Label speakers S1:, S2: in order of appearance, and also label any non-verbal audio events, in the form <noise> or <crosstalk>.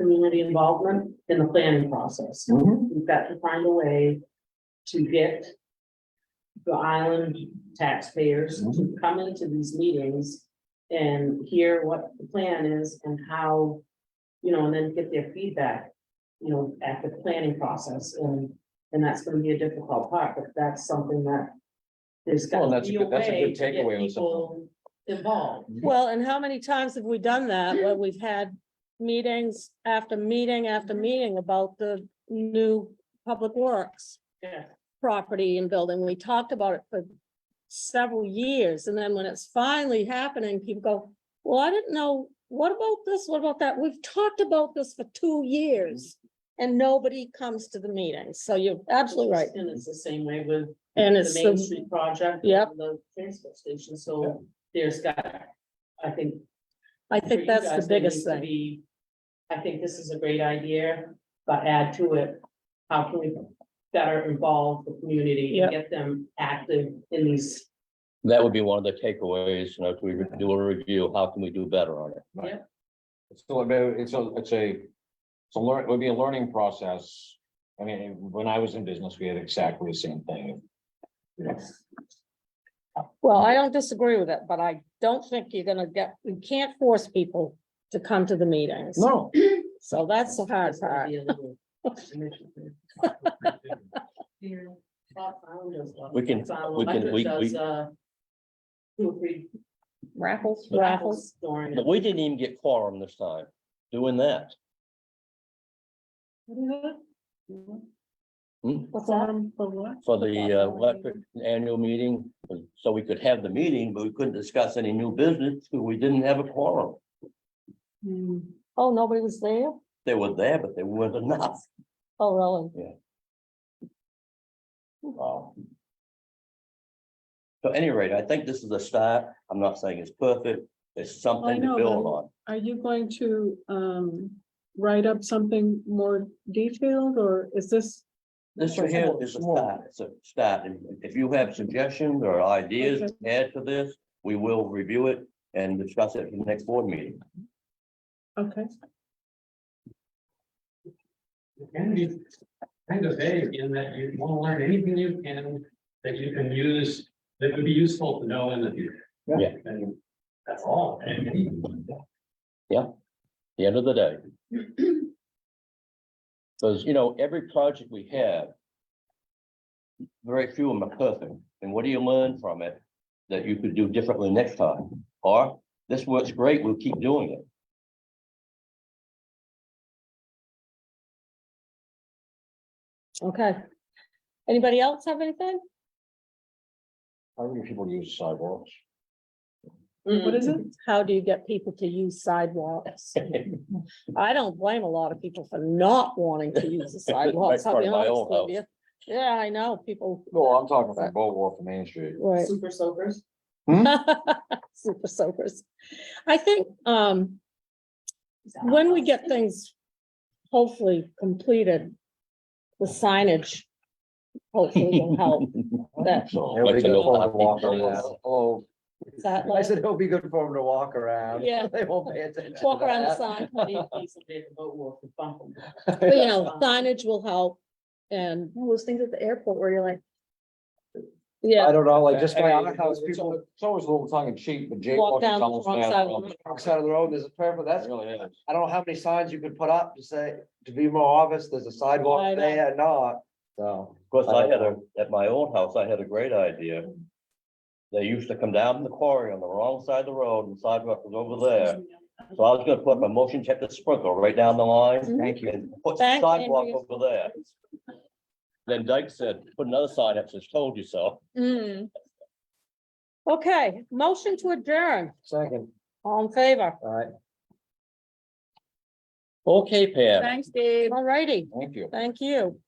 S1: community involvement in the planning process.
S2: Mm-hmm.
S1: We've got to find a way to get the island taxpayers
S3: Mm-hmm.
S1: to come into these meetings and hear what the plan is and how, you know, and then get their feedback, you know, at the planning process and, and that's gonna be a difficult part, but that's something that there's
S3: Well,
S1: got to
S3: that's a
S1: be a
S3: good- that's a
S1: way
S3: good
S1: to get
S3: takeaway with some-
S1: people involved.
S4: Well, and how many times have we done that, where we've had meetings after meeting after meeting about the new public works
S1: Yeah,
S4: property and building? We talked about it for several years, and then when it's finally happening, people go, well, I didn't know, what about this, what about that? We've talked about this for two years, and nobody comes to the meeting, so you're absolutely right,
S1: And it's the same way with
S4: and
S1: the
S4: it's
S1: Main
S4: the,
S1: Street project.
S4: Yep.
S1: and The transfer station, so there's got, I think.
S4: I
S1: for you
S4: think that's
S1: guys,
S4: the
S1: there
S4: biggest
S1: needs to
S4: thing.
S1: be, I think this is a great idea, but add to it, how can we better involve the community
S4: Yep.
S1: and get them active in these?
S3: That would be one of the takeaways, you know, if we do a review, how can we do better on it?
S1: Right. Yeah.
S5: It's still, a bit- it's a, it's a, it's a learn, it would be a learning process. I mean, when I was in business, we had exactly the same thing.
S4: Well, I don't disagree with it, but I don't think you're gonna get, you can't force people to come to the meetings.
S5: No. <laughs>
S4: So that's the hard
S1: It's gonna
S4: part.
S1: be a little- Bob Founder's one.
S3: We can-
S1: Bob
S3: we can- we-
S1: Founder's
S3: we-
S1: does, uh, Two or three
S4: Raffles.
S1: raffles
S4: Raffles.
S1: during.
S3: But we didn't even get quorum this time, doing that. Hmm?
S4: What's that?
S3: For the uh, electric annual meeting, so we could have the meeting, but we couldn't discuss any new business, because we didn't have a quorum.
S4: Oh, nobody was there?
S3: They were there, but they weren't enough.
S4: Oh, really?
S3: Wow. So at any rate, I think this is a start. I'm not saying it's perfect. It's
S6: I
S3: something to
S6: know,
S3: build
S6: but-
S3: on.
S6: Are you going to um write up something more detailed or is this?
S3: This right here is a start, it's a start. And If you have suggestions or ideas to add to this, we will review it and discuss it in the next board meeting.
S6: Okay,
S7: It can be kind of vague in that you want to learn anything you can, that you can use, that would be useful to know in the future.
S3: Yeah.
S7: And that's all. And
S3: the end of the day. Because, you know, every project we have. Very few of them are perfect, and what do you learn from it that you could do differently next time? Or this works great, we'll keep doing it.
S4: Okay. Anybody else have anything?
S5: How many people use sidewalks?
S1: Mm-hmm.
S6: what is it?
S4: How do you get people to use sidewalks? I don't blame a lot of people for not wanting to
S3: <laughs>
S4: use the sidewalks. I'll
S3: part
S4: be
S3: of my
S4: honest
S3: own
S4: with you. Yeah, I know, people,
S5: No, I'm talking from Boardwalk to Main Street.
S4: right. <laughs>
S1: Super soakers.
S4: Super soakers. I think, um, when we get things hopefully completed, the signage hopefully will help
S3: <laughs>
S4: that,
S3: So,
S2: It'll be
S3: like to
S2: good
S3: know
S2: for
S3: how
S2: them to walk
S3: people
S2: around.
S3: is.
S2: Oh,
S4: that
S2: I
S4: light.
S2: said it'll be good for them to walk around.
S4: Yeah.
S2: <laughs> They won't pay attention. to
S4: Walk around the
S2: that.
S4: sign,
S1: Put a piece of paper, boat walk, and bump them.
S4: but you know, signage will help and,
S8: all those things at the airport where you're like,
S2: I
S4: yeah,
S2: don't know, like just
S5: I
S2: by our
S5: mean,
S2: house,
S5: it's
S2: people
S5: al- It's always a little tongue in cheek, but Jake.
S4: walk down the wrong side. of the-
S2: walk side of the road, there's a purple, that's,
S5: Really is.
S2: I don't know how many signs you could put up to say, to be more obvious, there's a
S4: I
S2: sidewalk
S4: know.
S2: there or not. So,
S3: Of course, I had a, at my old house, I had a great idea. They used to come down from the quarry on the wrong side of the road and sidewalk was over there. So I was gonna put my motion detector sprinkle right down the line.
S2: thank you.
S3: and Put
S4: Thank
S3: sidewalk
S4: Andrea.
S3: over there. Then Dyke said, put another sign up, says told you so.
S4: Mm. Okay, motion to adjourn,
S2: Second,
S4: all in favor,
S2: all right.
S3: Okay, Pam.
S4: all righty,
S5: Thank you.
S4: thank you.